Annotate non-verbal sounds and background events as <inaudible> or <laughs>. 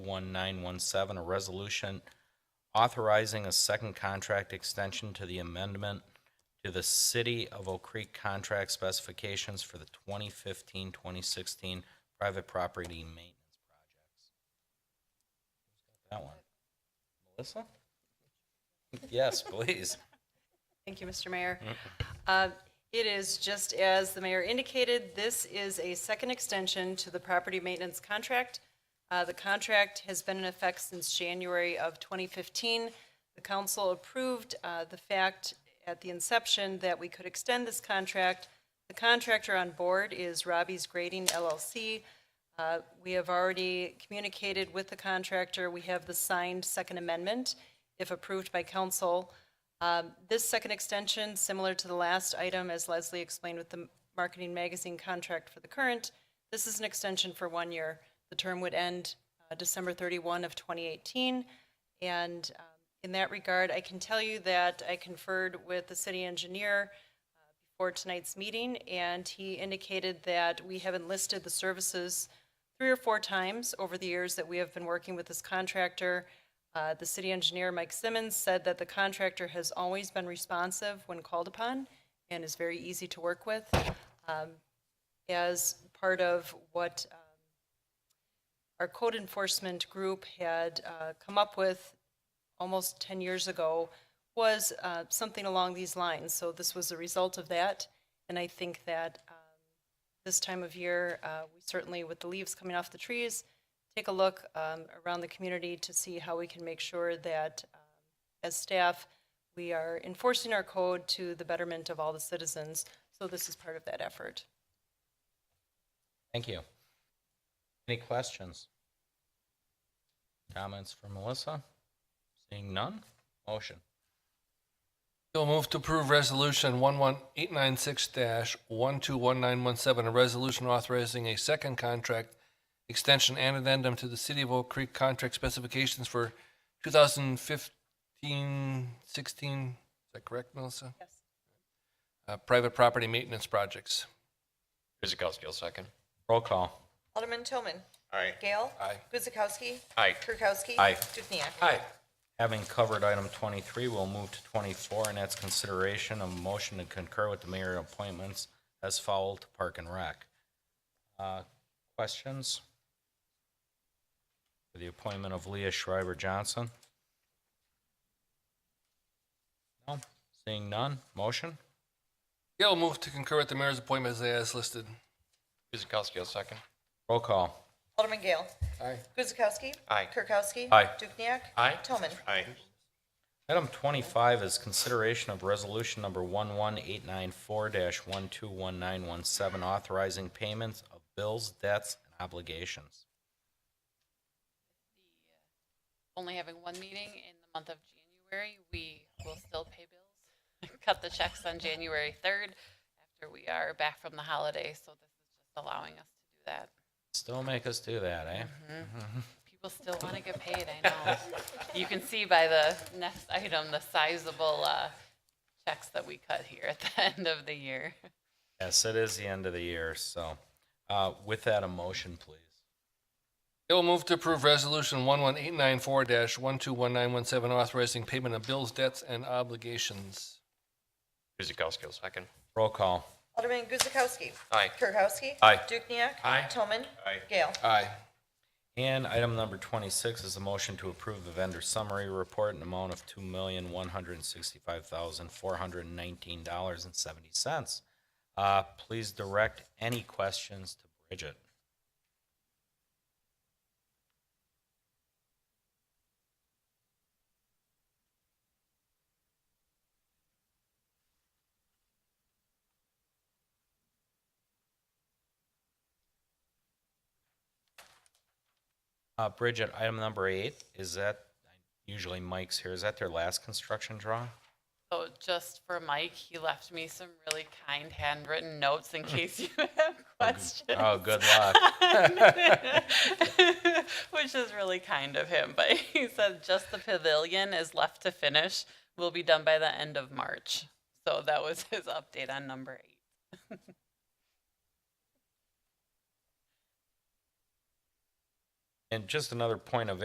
1917, a resolution authorizing a second contract extension to the amendment to the City of Oak Creek contract specifications for the 2015-2016 private property maintenance projects. That one. Melissa? Yes, please. Thank you, Mr. Mayor. Uh, It is, just as the mayor indicated, this is a second extension to the property maintenance contract. Uh, The contract has been in effect since January of 2015. The council approved uh, the fact at the inception that we could extend this contract. The contractor on board is Robbie's Grading LLC. Uh, We have already communicated with the contractor. We have the signed second amendment, if approved by council. Um, This second extension, similar to the last item, as Leslie explained with the marketing magazine contract for the current, this is an extension for one year. The term would end uh, December 31 of 2018. And um, in that regard, I can tell you that I conferred with the city engineer uh, before tonight's meeting, and he indicated that we have enlisted the services three or four times over the years that we have been working with this contractor. Uh, The city engineer, Mike Simmons, said that the contractor has always been responsive when called upon and is very easy to work with. Um, As part of what um, our code enforcement group had uh, come up with almost 10 years ago was uh, something along these lines. So this was a result of that, and I think that um, this time of year, uh, we certainly, with the leaves coming off the trees, take a look um, around the community to see how we can make sure that, um, as staff, we are enforcing our code to the betterment of all the citizens. So this is part of that effort. Thank you. Any questions? Comments for Melissa? Seeing none? Motion. You'll move to approve Resolution 11896-121917, a resolution authorizing a second contract extension and addendum to the City of Oak Creek contract specifications for 2015-16, is that correct, Melissa? Yes. Uh, Private property maintenance projects. Kuzikowski will second. Roll call. Alderman Toman. Aye. Gale. Aye. Guzekowski. Aye. Kirkowski. Aye. Dukenyak. Aye. Having covered item 23, we'll move to 24, and that's consideration of motion to concur with the mayor appointments as foul to Park and Rec. Uh, Questions? For the appointment of Leah Schreiber Johnson? No? Seeing none? Motion? Gale move to concur with the mayor's appointment as listed. Kuzikowski will second. Roll call. Alderman Gale. Aye. Guzekowski. Aye. Kirkowski. Aye. Dukenyak. Aye. Toman. Aye. Item 25 is consideration of resolution number 11894-121917, authorizing payments of bills, debts, and obligations. only having one meeting in the month of January, we will still pay bills, <laughs> cut the checks on January 3rd after we are back from the holiday. So this is just allowing us to do that. Still make us do that, eh? People still want to get paid, I know. You can see by the next item, the sizable uh, checks that we cut here at <laughs> the end of the year. Yes, it is the end of the year, so uh, with that, a motion, please. Gale move to approve Resolution 11894-121917, authorizing payment of bills, debts, and obligations. Kuzikowski will second. Roll call. Alderman Guzekowski. Aye. Kirkowski. Aye. Dukenyak. Aye. Toman. Aye. Gale. Aye. And item number 26 is a motion to approve the vendor summary report in amount of $2,165,419.70. Uh, Please direct any questions to Bridget. Uh, Bridget, item number eight, is that, usually Mike's here, is that their last construction draw? So just for Mike, he left me some really kind handwritten notes in case you have questions. Oh, good luck. <laughs> which is really kind of him. But <laughs> he said just the pavilion is left to finish. Will be done by the end of March. So that was his update on number eight. And just another point of